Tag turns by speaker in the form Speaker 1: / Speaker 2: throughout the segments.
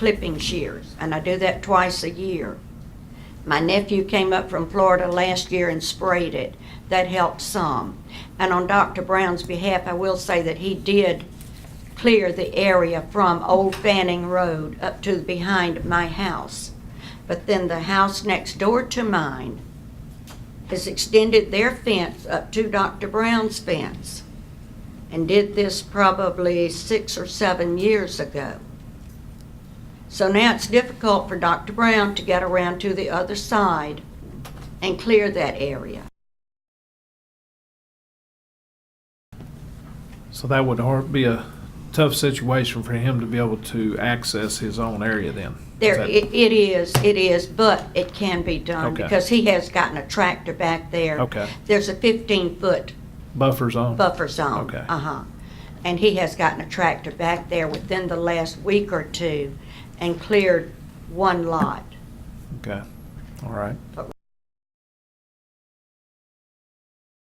Speaker 1: clipping shears, and I do that twice a year. My nephew came up from Florida last year and sprayed it. That helped some. And on Dr. Brown's behalf, I will say that he did clear the area from Old Fanning Road up to behind my house. But then the house next door to mine has extended their fence up to Dr. Brown's fence and did this probably six or seven years ago. So now it's difficult for Dr. Brown to get around to the other side and clear that area.
Speaker 2: So that would har- be a tough situation for him to be able to access his own area then. Is
Speaker 1: There,
Speaker 2: that-
Speaker 1: it it is, it is, but it can be done
Speaker 2: Okay.
Speaker 1: because he has gotten a tractor back there.
Speaker 2: Okay.
Speaker 1: There's a 15-foot
Speaker 2: Buffer zone?
Speaker 1: buffer zone.
Speaker 2: Okay.
Speaker 1: Uh-huh. And he has gotten a tractor back there within the last week or two and cleared one lot.
Speaker 2: Okay, all right.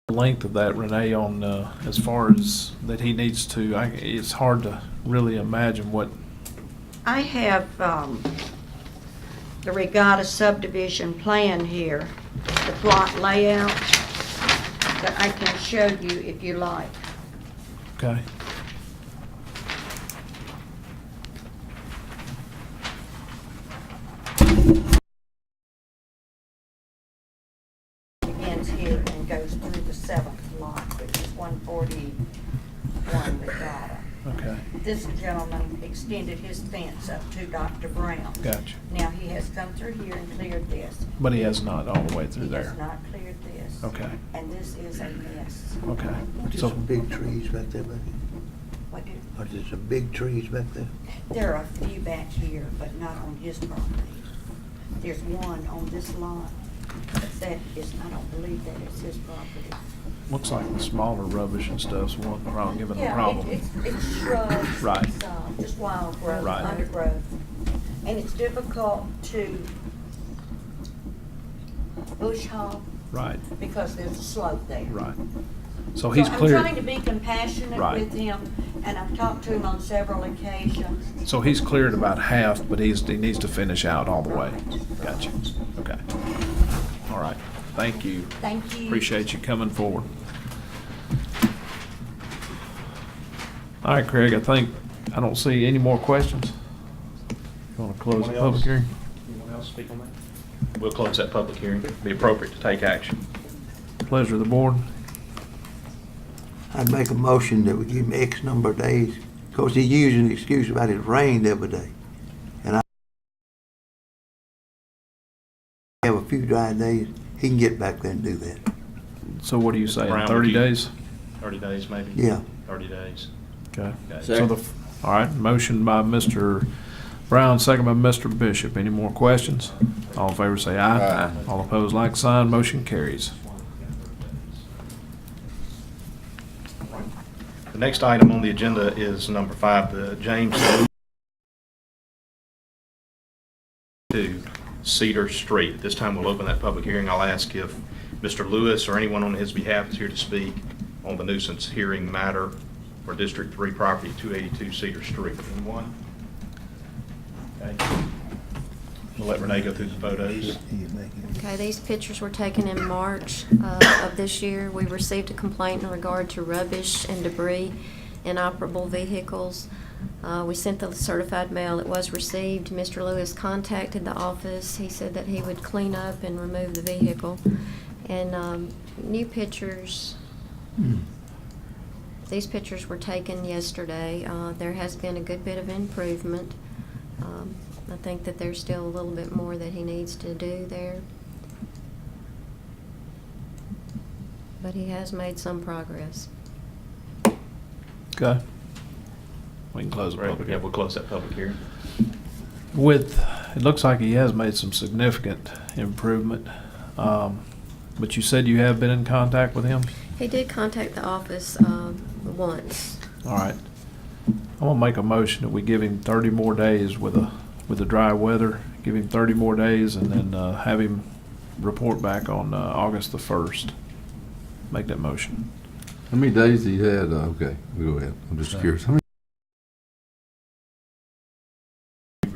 Speaker 2: Length of that, Renee, on, uh, as far as that he needs to, I, it's hard to really imagine what,
Speaker 1: I have um, the Regatta subdivision plan here, the plot layout that I can show you if you like.
Speaker 2: okay?
Speaker 1: Begins here and goes through the seventh lot, which is 141 Regatta.
Speaker 2: Okay,
Speaker 1: This gentleman extended his fence up to Dr. Brown.
Speaker 2: gotcha.
Speaker 1: Now, he has come through here and cleared this.
Speaker 2: But he has not all the way through
Speaker 1: He has
Speaker 2: there.
Speaker 1: not cleared this.
Speaker 2: Okay,
Speaker 1: And this is a mess.
Speaker 2: okay.
Speaker 3: Just
Speaker 2: So,
Speaker 3: some big trees back there, buddy.
Speaker 1: What do-
Speaker 3: Are there some big trees back there?
Speaker 1: There are a few back here, but not on his property. There's one on this lot, but that is, I don't believe that it's his property.
Speaker 2: looks like the smaller rubbish and stuff's what, wrong, given the
Speaker 1: Yeah,
Speaker 2: problem.
Speaker 1: it- it's, it's shrubs.
Speaker 2: Right.
Speaker 1: it's, um, Just wild growth,
Speaker 2: Right.
Speaker 1: undergrowth. And it's difficult to bush hog
Speaker 2: Right,
Speaker 1: because there's a slope there.
Speaker 2: right. So he's
Speaker 1: So I'm trying to
Speaker 2: cleared,
Speaker 1: be compassionate
Speaker 2: Right.
Speaker 1: with him, and I've talked to him on several occasions.
Speaker 2: so he's cleared about half, but he's, he needs to finish out all the way. Gotcha, okay. All right, thank you.
Speaker 1: Thank you.
Speaker 2: Appreciate you coming forward. All right, Craig, I think, I don't see any more questions. You want to close the
Speaker 4: Anyone else?
Speaker 2: public hearing?
Speaker 4: Anyone else speak on that? We'll close that public hearing. It'd Be appropriate to take action.
Speaker 2: Pleasure of the board.
Speaker 3: I'd make a motion that we give him X number of days, 'cause he used an excuse about it rained every day. And I have a few dry days, he can get back there and do that.
Speaker 2: So what do you say,
Speaker 4: Brown, would
Speaker 2: thirty
Speaker 4: you-
Speaker 2: days?
Speaker 4: Thirty days, maybe?
Speaker 3: Yeah.
Speaker 4: Thirty days.
Speaker 2: Okay.
Speaker 4: Okay.
Speaker 2: So the, all right, motion by Mr. Brown, second by Mr. Bishop. Any more questions? All in favor say aye. All opposed, like sign. Motion carries.
Speaker 4: The next item on the agenda is number five, the James Lewis to Cedar Street. At This time, we'll open that public hearing. I'll ask if Mr. Lewis or anyone on his behalf is here to speak on the nuisance hearing matter for District Three property, two eighty-two Cedar Street. Anyone? Okay. We'll let Renee go through the photos.
Speaker 5: Okay, these pictures were taken in March uh, of this year. We received a complaint in regard to rubbish and debris in operable vehicles. Uh, We sent the certified mail, it was received. Mr. Lewis contacted the office. He said that he would clean up and remove the vehicle. And um, new pictures, these pictures were taken yesterday. Uh, There has been a good bit of improvement. Um, I think that there's still a little bit more that he needs to do there. But he has made some progress.
Speaker 2: Okay. We can close the public
Speaker 4: Yeah,
Speaker 2: hearing.
Speaker 4: we'll close that public hearing.
Speaker 2: With, it looks like he has made some significant improvement. Um, But you said you have been in contact with him?
Speaker 5: He did contact the office um, once.
Speaker 2: All right. I'm gonna make a motion that we give him thirty more days with a, with the dry weather. Give him thirty more days and then uh, have him report back on uh, August the first. Make that motion.
Speaker 6: How many days he had? Uh, Okay, we go Oh, ahead. I'm just curious. How many